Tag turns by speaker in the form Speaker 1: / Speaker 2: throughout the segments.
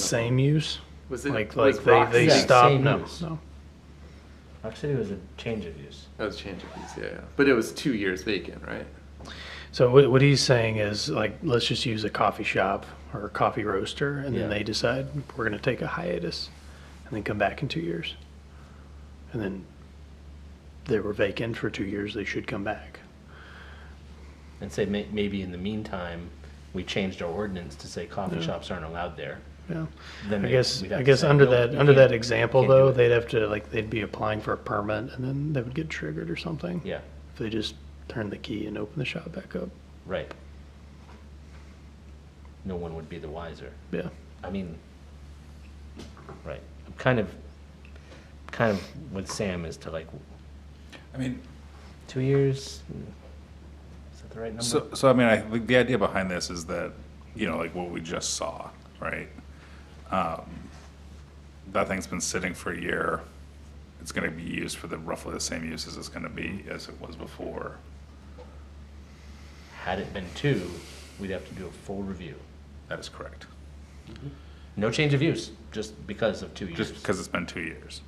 Speaker 1: same use?
Speaker 2: Was it
Speaker 1: Like,
Speaker 2: was
Speaker 1: like they,
Speaker 2: Rock
Speaker 1: they
Speaker 2: City-
Speaker 3: Yeah,
Speaker 1: stop,
Speaker 3: same
Speaker 1: no,
Speaker 3: use.
Speaker 1: no.
Speaker 3: Rock City was a change of use.
Speaker 2: That was change of use, yeah, yeah. But it was two years vacant, right?
Speaker 1: So what, what he's saying is like, let's just use a coffee shop or a coffee roaster and
Speaker 3: Yeah.
Speaker 1: then they decide we're gonna take a hiatus and then come back in two years. And then they were vacant for two years, they should come back.
Speaker 3: And say may, maybe in the meantime, we changed our ordinance to say coffee shops aren't allowed there.
Speaker 1: Yeah.
Speaker 3: Then
Speaker 1: I
Speaker 3: they-
Speaker 1: guess,
Speaker 3: we'd have
Speaker 1: I
Speaker 3: to
Speaker 1: guess
Speaker 3: say,
Speaker 1: under
Speaker 3: "Nope,
Speaker 1: that,
Speaker 3: you
Speaker 1: under
Speaker 3: can't-
Speaker 1: that
Speaker 3: you
Speaker 1: example
Speaker 3: can't do
Speaker 1: though,
Speaker 3: it."
Speaker 1: they'd have to, like, they'd be applying for a permit and then they would get triggered or something.
Speaker 3: Yeah,
Speaker 1: If they just turn the key and open the shop back up.
Speaker 3: right. No one would be the wiser.
Speaker 1: Yeah.
Speaker 3: I mean, right. I'm kind of, kind of with Sam as to like
Speaker 4: I mean,
Speaker 3: two years. Is that the right number?
Speaker 4: so, so I mean, I think the idea behind this is that, you know, like what we just saw, right? Um, That thing's been sitting for a year. It's gonna be used for the roughly the same uses it's gonna be as it was before.
Speaker 3: Had it been two, we'd have to do a full review.
Speaker 4: That is correct.
Speaker 3: No change of use, just because of two years.
Speaker 4: just because it's been two years.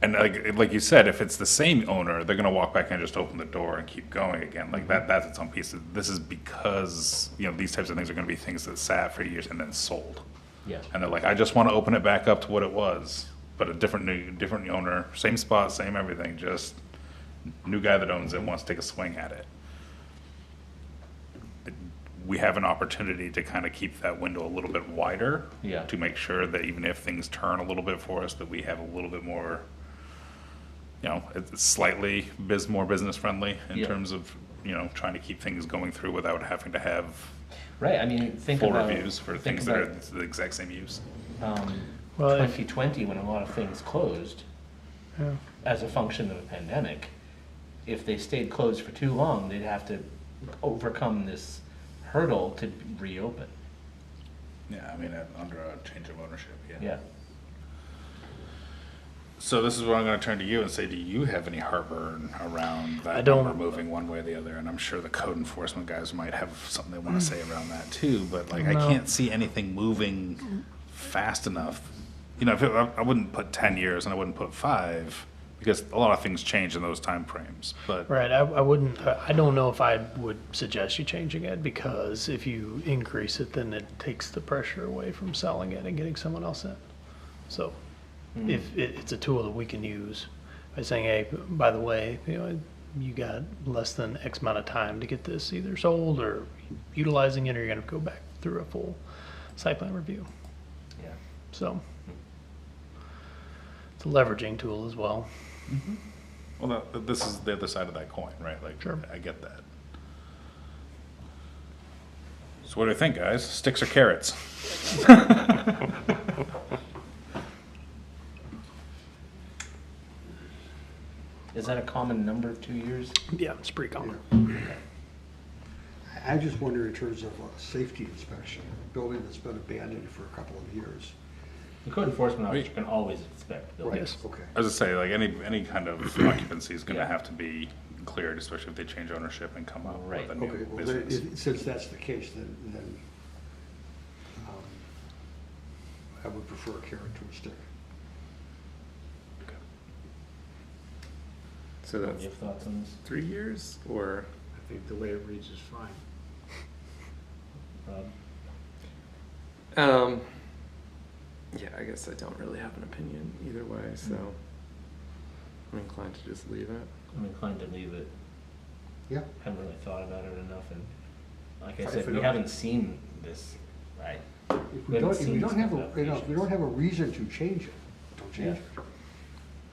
Speaker 4: And like, like you said, if it's the same owner, they're gonna walk back and just open the door and keep going again, like that, that's its own piece. This is because, you know, these types of things are gonna be things that sat for years and then sold.
Speaker 3: Yeah,
Speaker 4: And they're like, I just wanna open it back up to what it was, but a different new, different owner, same spot, same everything, just new guy that owns it wants to take a swing at it. We have an opportunity to kind of keep that window a little bit wider.
Speaker 3: Yeah.
Speaker 4: To make sure that even if things turn a little bit for us, that we have a little bit more, you know, it's slightly biz, more business friendly in
Speaker 3: Yeah.
Speaker 4: terms of, you know, trying to keep things going through without having to have
Speaker 3: right, I mean, think
Speaker 4: full
Speaker 3: about.
Speaker 4: reviews for
Speaker 3: think
Speaker 4: things that are
Speaker 3: about,
Speaker 4: the exact same use.
Speaker 3: um,
Speaker 1: Well, if-
Speaker 3: 2020, when a lot of things closed,
Speaker 1: Yeah.
Speaker 3: as a function of a pandemic, if they stayed closed for too long, they'd have to overcome this hurdle to reopen.
Speaker 4: Yeah, I mean, uh, under a change of ownership,
Speaker 3: Yeah.
Speaker 4: So this is where I'm gonna turn to you and say, do you have any heartburn around
Speaker 1: I
Speaker 4: that
Speaker 1: don't-
Speaker 4: number moving one way or the other? And I'm sure the code enforcement guys might have something they wanna say around that too, but like, I
Speaker 1: No.
Speaker 4: can't see anything moving fast enough. You know, if it- I, I wouldn't put ten years and I wouldn't put five, because a lot of things change in those timeframes, but.
Speaker 1: Right, I, I wouldn't, I I don't know if I would suggest you changing it, because if you increase it, then it takes the pressure away from selling it and getting someone else in. So, if, it, it's a tool that we can use by saying, hey, by the way, you know, you got less than X amount of time to get this either sold or utilizing it, or you're gonna go back through a full site plan review,
Speaker 3: Yeah.
Speaker 1: so. It's a leveraging tool as well.
Speaker 4: Well, that- that- this is the other side of that coin, right? Like,
Speaker 1: Sure.
Speaker 4: I get that. So what do you think, guys? Sticks or carrots?
Speaker 3: Is that a common number, two years?
Speaker 1: Yeah, it's pretty common.
Speaker 5: I just wonder in terms of a safety inspection, a building that's been abandoned for a couple of years.
Speaker 3: The code enforcement officer
Speaker 4: Wait.
Speaker 3: can always inspect buildings.
Speaker 1: Yes.
Speaker 5: Okay.
Speaker 4: I was just say, like, any, any kind of occupancy is
Speaker 3: Yeah.
Speaker 4: gonna have to be cleared, especially if they change ownership and come up
Speaker 3: Right.
Speaker 4: with a
Speaker 5: Okay,
Speaker 4: new
Speaker 5: well, then,
Speaker 4: business.
Speaker 5: if- since that's the case, then, then, um, I would prefer a carrot to a stick.
Speaker 2: So
Speaker 3: Do you
Speaker 2: that's
Speaker 3: have thoughts on this,
Speaker 2: three years or
Speaker 6: I think the way it reads is fine.
Speaker 3: Rob?
Speaker 2: um yeah, I guess I don't really have an opinion either way, so I'm inclined to just leave it.
Speaker 3: I'm inclined to leave it.
Speaker 5: Yeah.
Speaker 3: Haven't really thought about it enough, and like I
Speaker 5: If
Speaker 3: said,
Speaker 5: we
Speaker 3: we
Speaker 5: don't-
Speaker 3: haven't seen this, right?
Speaker 5: If
Speaker 3: We
Speaker 5: we
Speaker 3: haven't
Speaker 5: don't, if we
Speaker 3: seen
Speaker 5: don't
Speaker 3: some
Speaker 5: have, a- you know, if we
Speaker 3: applications.
Speaker 5: don't have a reason to change it, don't change
Speaker 3: Yeah.
Speaker 5: it.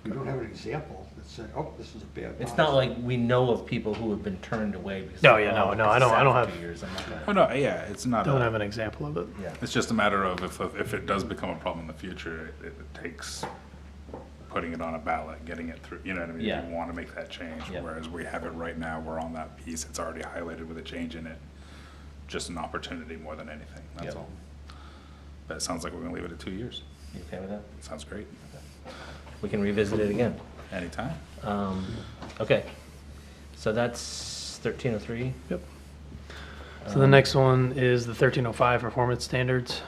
Speaker 5: We don't have an example that said, oh, this is a bad.
Speaker 3: It's
Speaker 5: policy.
Speaker 3: not like we know of people who have been turned away because.
Speaker 1: No, yeah, no,
Speaker 3: "Oh,
Speaker 1: no, I
Speaker 3: it's
Speaker 1: don't- I don't
Speaker 3: out for
Speaker 1: have-
Speaker 3: Two years, I'm not
Speaker 4: Oh,
Speaker 3: gonna.
Speaker 4: no, yeah, it's not,
Speaker 1: Don't
Speaker 4: a-
Speaker 1: have an example of it.
Speaker 3: Yeah,
Speaker 4: it's just a matter of if, if it does become a problem in the future, it, it takes putting it on a ballot, getting it through, you know what I mean?
Speaker 3: Yeah.
Speaker 4: If you wanna make that change,
Speaker 3: Yeah.
Speaker 4: whereas we have it right now, we're on that piece, it's already highlighted with a change in it. Just an opportunity more than anything, that's
Speaker 3: Yeah.
Speaker 4: all. But it sounds like we're gonna leave it at two years.
Speaker 3: you okay with that?
Speaker 4: Sounds great.
Speaker 3: We can revisit it again.
Speaker 4: Anytime.
Speaker 3: Um, okay, so that's thirteen oh three.
Speaker 1: Yep. So the next one is the thirteen oh five performance standards.